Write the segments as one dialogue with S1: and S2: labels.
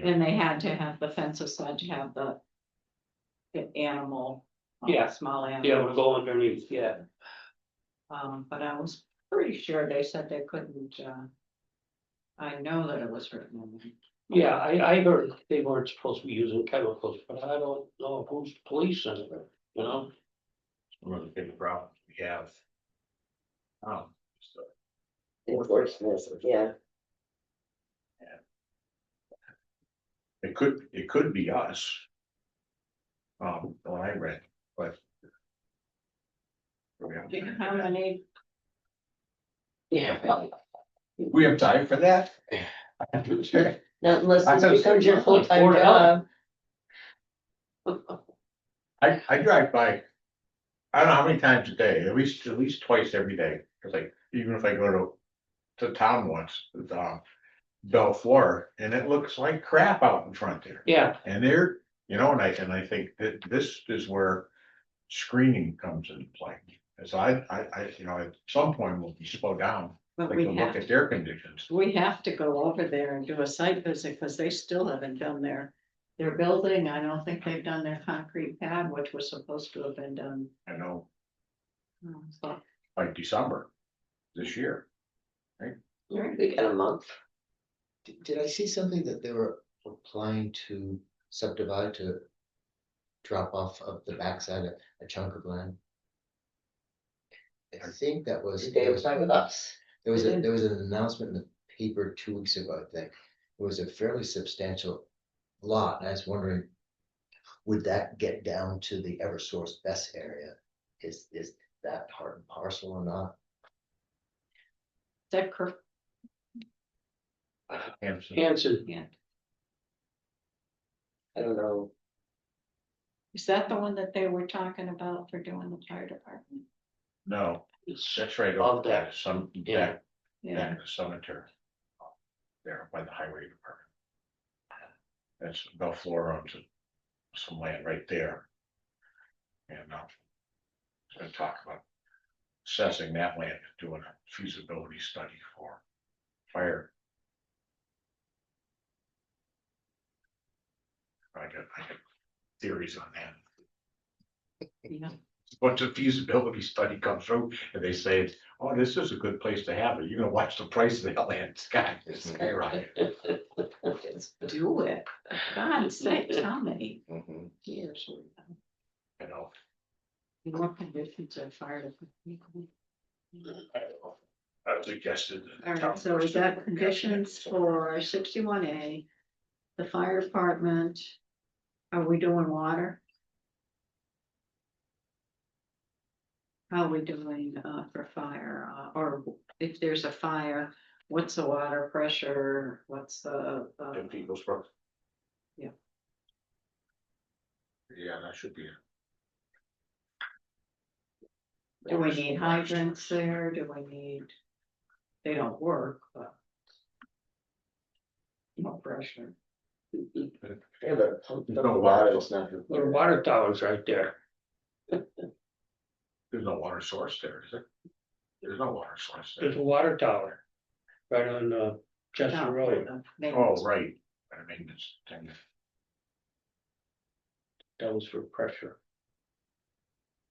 S1: And they had to have, the fences had to have the. The animal. um,
S2: Yeah.
S1: Small
S2: Yeah,
S1: animal,
S2: we'll go underneath, yeah.
S1: um, but I was pretty sure they said they couldn't, uh. I know that it was written in there.
S2: Yeah, I, I heard they weren't supposed to be using chemicals, but I don't know who's policing it, you know?
S3: One of the big problems we have. Um, so,
S4: Enforcement, yeah,
S3: it could, it could be us. Um, when I read, but. We have-
S1: Do you know how many?
S4: yeah,
S3: we have time for that? Sure.
S4: not unless
S3: I thought
S4: this becomes your
S3: it's-
S4: full-time
S2: Or-
S4: job.
S3: I, I drive by. I don't know how many times a day, at least, at least twice every day, cause like, even if I go to, to town once, it's, um. Bell Flora, and it looks like crap out in front there.
S2: Yeah,
S3: And there, you know, and I, and I think that this is where screening comes into play. As I, I, I, you know, at some point we'll slow down,
S1: But
S3: like
S1: we
S3: to look
S1: have,
S3: at their conditions.
S1: we have to go over there and do a site visit, cause they still haven't done their. Their building, I don't think they've done their concrete pad, which was supposed to have been done.
S3: I know
S1: um, so-
S3: by December this year.
S4: We got a month,
S5: Did, did I see something that they were applying to subdivide to drop off of the backside of a chunk of land? I think that was,
S4: today
S5: there
S4: was
S5: was,
S4: not with us,
S5: there was, a-
S1: Mhm.
S5: there was an announcement in the paper two weeks ago, I think. It was a fairly substantial lot, and I was wondering, would that get down to the Eversource best area? Is, is that part and parcel or not?
S1: Is that correct?
S3: Hampson,
S2: Hanson,
S1: Yeah.
S4: I don't know,
S1: Is that the one that they were talking about for doing the fire department?
S3: no,
S2: it's
S3: that's right.
S2: Of
S3: over
S2: that,
S3: there, Some,
S2: yeah.
S3: back, back to cemetery. uh, There by the highway department. That's Bell Flora owns it, some land right there. And, uh. Gonna talk about assessing that land, doing a feasibility study for fire. I got, I got theories on that.
S1: Yeah.
S3: Once a feasibility study comes through and they say, oh, this is a good place to have it, you're gonna watch the price of that land sky, skyrocket.
S4: it's,
S1: Do it. God sakes, how many
S4: mhm.
S1: years? we have.
S3: You know,
S1: In What conditions are fire department?
S3: I don't know. I suggested. that the
S1: All
S3: town
S1: right, so
S3: person
S1: is
S3: look
S1: that
S3: at
S1: conditions
S3: it.
S1: for sixty-one A? The fire department? Are we doing water? How are we doing uh for fire, uh, or if there's a fire, what's the water pressure, what's the? uh,
S3: In people's work.
S1: Yeah.
S3: Yeah, that should be. it.
S1: Do we need hydrants there? Do we need? They don't work, but. No pressure.
S4: yeah, but pump,
S3: There's
S4: the
S3: no
S4: water
S3: water.
S4: is not. gonna-
S2: the water tower's right there.
S3: There's no water source there, is there? There's no water source
S2: There's
S3: there.
S2: a water tower right on, uh, Chester
S1: No,
S2: Road.
S1: the maintenance.
S3: Oh, right, I mean, it's,
S2: That was for pressure.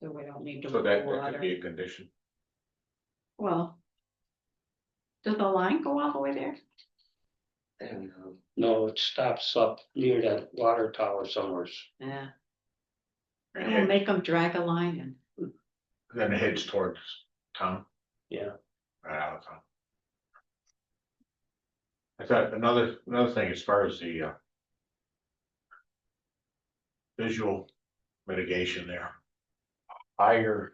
S1: So we don't need to.
S3: so that, that
S1: water.
S3: could be a condition.
S1: Well. Does the line go all the way there?
S4: I don't know,
S2: No, it stops up near that water tower somewhere.
S1: Yeah.
S3: And
S1: We'll
S3: it-
S1: make them drag a line in.
S3: Then it heads towards town.
S2: Yeah.
S3: Right out of town. I thought another, another thing as far as the uh. Visual mitigation there. Higher.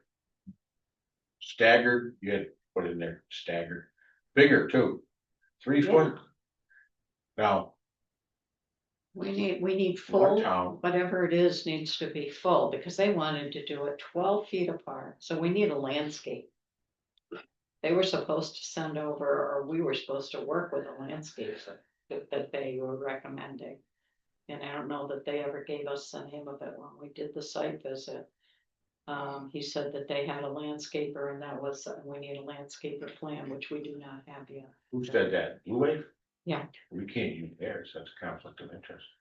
S3: Staggered, you had put in there staggered, bigger too, three foot. Now,
S1: We need, we need
S3: our
S1: full,
S3: town,
S1: whatever it is needs to be full because they wanted to do it twelve feet apart. So we need a landscape. They were supposed to send over, or we were supposed to work with the landscapes that- that, that they were recommending. And I don't know that they ever gave us the name of it when we did the site visit. Um, he said that they had a landscaper and that was, uh, we need a landscaper plan, which we do not have yet.
S3: who said that, Blue Wave?
S1: Yeah.
S3: We can't use theirs, that's a conflict of interest.